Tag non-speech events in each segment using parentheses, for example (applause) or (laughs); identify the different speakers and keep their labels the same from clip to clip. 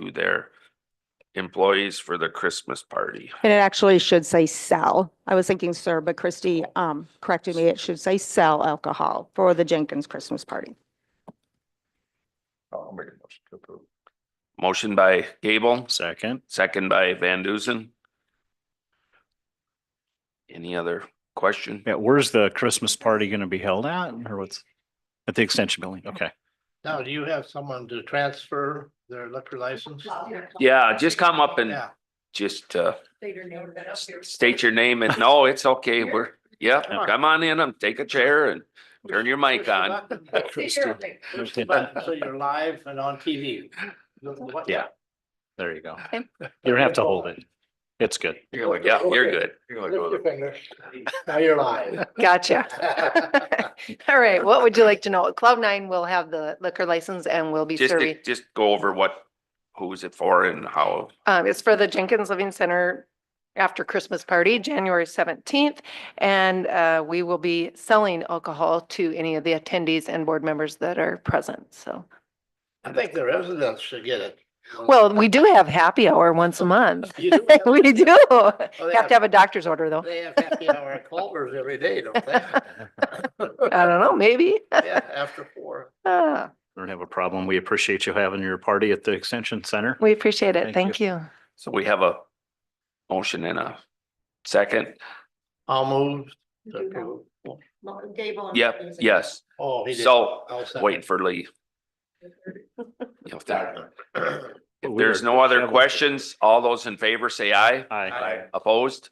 Speaker 1: to their employees for the Christmas party.
Speaker 2: And it actually should say sell. I was thinking sir, but Christie um, corrected me. It should say sell alcohol for the Jenkins Christmas party.
Speaker 3: I'll make a motion to approve.
Speaker 1: Motion by Gable,
Speaker 4: Second.
Speaker 1: second by Van Dusen. Any other question?
Speaker 4: Yeah, where's the Christmas party gonna be held at or what's? At the extension building, okay.
Speaker 5: Now, do you have someone to transfer their liquor license?
Speaker 1: Yeah, just come up and
Speaker 5: Yeah,
Speaker 1: just uh state
Speaker 6: State
Speaker 1: your name and, no, it's okay, we're, yeah,
Speaker 5: Come on.
Speaker 1: come on in and take a chair and turn your
Speaker 5: Push
Speaker 1: mic
Speaker 5: the
Speaker 1: on.
Speaker 5: button.
Speaker 6: Push
Speaker 4: Christie.
Speaker 6: the button.
Speaker 5: Push the button, So you're live and on TV.
Speaker 4: Yeah. There you go.
Speaker 2: Okay.
Speaker 4: You don't have to hold it. It's good.
Speaker 1: Yeah, you're good.
Speaker 5: Lift your finger. Now you're live. (laughs)
Speaker 6: Gotcha. All right, what would you like to know? Cloud nine will have the liquor license and will be
Speaker 1: Just,
Speaker 6: serving.
Speaker 1: to- just go over what, who's it for and how,
Speaker 6: Um, it's for the Jenkins Living Center after Christmas party, January seventeenth. And, uh, we will be selling alcohol to any of the attendees and board members that are present, so.
Speaker 5: I think the residents should get it.
Speaker 6: Well, we do have happy hour once a month. (laughs)
Speaker 5: You do have-
Speaker 6: We do.
Speaker 5: they
Speaker 6: Have
Speaker 5: have-
Speaker 6: to have a doctor's order, though.
Speaker 5: They have happy hour at Culver's every day, don't
Speaker 6: (laughs)
Speaker 5: they?
Speaker 6: I don't know, maybe.
Speaker 5: Yeah, after four.
Speaker 6: Ah,
Speaker 4: We Don't have a problem. We appreciate you having your party at the extension center.
Speaker 6: We appreciate it.
Speaker 4: Thank
Speaker 6: Thank you.
Speaker 1: so we have a motion and a second.
Speaker 5: I'll move.
Speaker 1: Yep, yes.
Speaker 5: Oh, he did.
Speaker 1: So,
Speaker 5: I'll second.
Speaker 1: waiting for Lee.
Speaker 6: (laughs)
Speaker 1: You know, if there-
Speaker 4: But
Speaker 1: If
Speaker 4: we
Speaker 1: there's
Speaker 4: are-
Speaker 1: no other questions, all those in favor say aye.
Speaker 4: Aye.
Speaker 1: Opposed?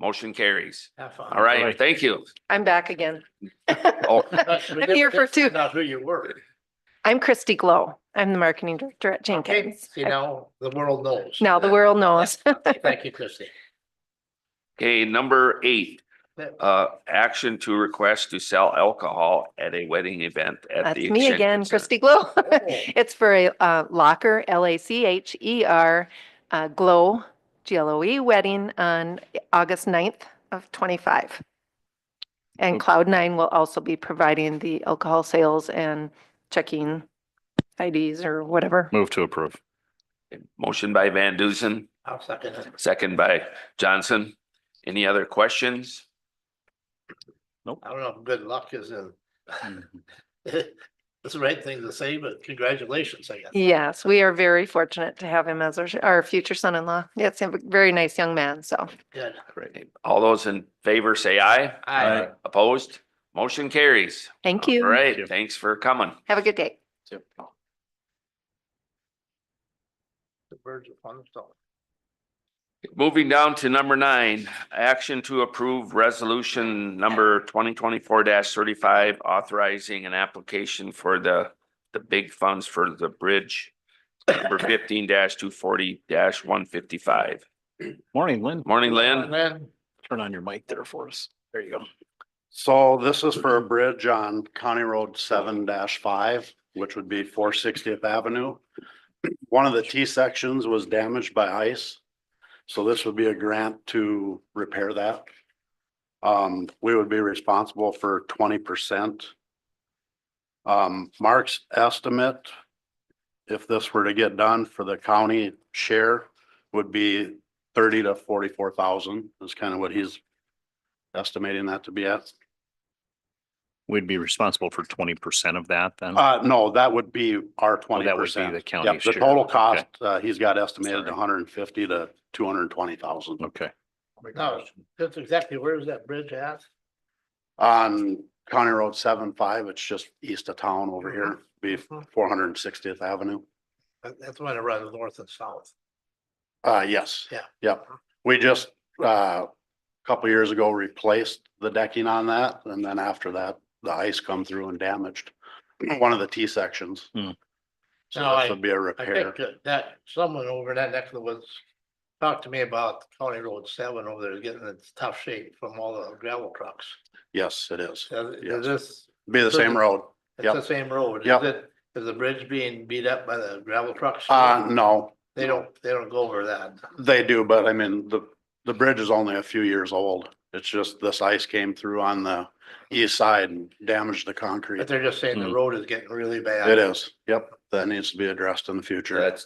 Speaker 1: Motion carries.
Speaker 5: Have fun.
Speaker 1: All
Speaker 4: Aye.
Speaker 1: right, thank you.
Speaker 6: I'm back again. (laughs)
Speaker 1: Oh,
Speaker 5: That's-
Speaker 6: I'm here for two.
Speaker 5: Not who you were.
Speaker 6: I'm Christy Glow. I'm the marketing director at
Speaker 5: Okay,
Speaker 6: Jenkins.
Speaker 5: see now, the world knows.
Speaker 6: (laughs) Now the world knows.
Speaker 5: Thank you, Christie.
Speaker 1: Okay, number eight, uh, action to request to sell alcohol at a wedding event at
Speaker 6: That's
Speaker 1: the.
Speaker 6: me
Speaker 1: Extension
Speaker 6: again,
Speaker 1: Center.
Speaker 6: Christy Glow. (laughs) It's for a uh, Locker, L-A-C-H-E-R, E uh, Glow, G-L-O-E E, wedding on August 9th of 25. And Cloud Nine will also be providing the alcohol sales and checking IDs or whatever.
Speaker 4: Move to approve.
Speaker 1: Motion by Van Dusen,
Speaker 5: I'll second it.
Speaker 1: second by Johnson. Any other questions?
Speaker 5: I don't know if good luck is in.
Speaker 4: Hmm.
Speaker 5: (laughs) It's the right thing to say, but congratulations, I guess.
Speaker 6: Yes, we are very fortunate to have him as our, our future son-in-law. Yes, a very nice young man, so.
Speaker 5: Good.
Speaker 1: Great. All those in favor say aye.
Speaker 5: Aye.
Speaker 1: Opposed? Motion carries.
Speaker 6: Thank
Speaker 1: All
Speaker 6: you.
Speaker 1: right, thanks for coming.
Speaker 6: Have a good day.
Speaker 5: The birds of fun stuff.
Speaker 1: Moving down to number nine, action to approve resolution number twenty twenty-four thirty-five, authorizing an application for the, the big funds for the bridge. Number fifteen two forty one fifty-five.
Speaker 4: Morning, Lynn.
Speaker 1: Morning,
Speaker 5: And
Speaker 1: Lynn.
Speaker 5: then,
Speaker 4: Turn on your mic there for us. There you go.
Speaker 7: So this is for a bridge on County Road seven five, which would be four sixtieth Avenue. One of the T sections was damaged by ice, so this would be a grant to repair that. Um, we would be responsible for twenty percent. Um, Mark's estimate, if this were to get done for the county share, would be thirty to forty-four thousand is kind of what he's estimating that to be at.
Speaker 4: We'd be responsible for twenty percent of that then.
Speaker 7: Uh, no, that would be
Speaker 4: Mm-hmm. Oh,
Speaker 7: our
Speaker 4: would be
Speaker 7: twenty percent.
Speaker 4: the county
Speaker 7: The
Speaker 4: share.
Speaker 7: total
Speaker 4: Okay.
Speaker 7: cost, uh, he's got estimated
Speaker 4: Sorry.
Speaker 7: hundred and fifty to two hundred and twenty thousand
Speaker 4: Okay.
Speaker 5: no, that's exactly, where is that bridge at?
Speaker 7: on County Road seven five. It's just east of town over here,
Speaker 4: Mm-hmm.
Speaker 7: be
Speaker 5: Mhm.
Speaker 7: four hundred and sixtieth Avenue.
Speaker 5: That- That's when it runs north and south.
Speaker 7: Uh, yes.
Speaker 5: Yeah.
Speaker 7: Yep. We just, uh, a couple years ago replaced the decking on that and then after that, the ice come through and damaged one of the T sections.
Speaker 4: Hmm.
Speaker 7: So
Speaker 5: Now, I-
Speaker 7: this would be a
Speaker 5: I
Speaker 7: repair.
Speaker 5: think that- that someone over in that neck of the woods talked to me about County Road seven over there is getting in tough shape from all the gravel trucks.
Speaker 7: Yes, it is.
Speaker 5: Is
Speaker 7: Yes.
Speaker 5: is this,
Speaker 7: Be the same road.
Speaker 5: it's
Speaker 7: Yep.
Speaker 5: the same road? Is
Speaker 7: Yep.
Speaker 5: it- Is the bridge being beat up by the gravel trucks?
Speaker 7: Uh, no,
Speaker 5: They don't, they don't go over that.
Speaker 7: They do, but I mean, the, the bridge is only a few years old. It's just this ice came through on the east side and damaged the concrete.
Speaker 5: But they're just saying the
Speaker 4: Hmm.
Speaker 5: road is getting really bad.
Speaker 7: It is, yep, that needs to be addressed in the future.
Speaker 1: That's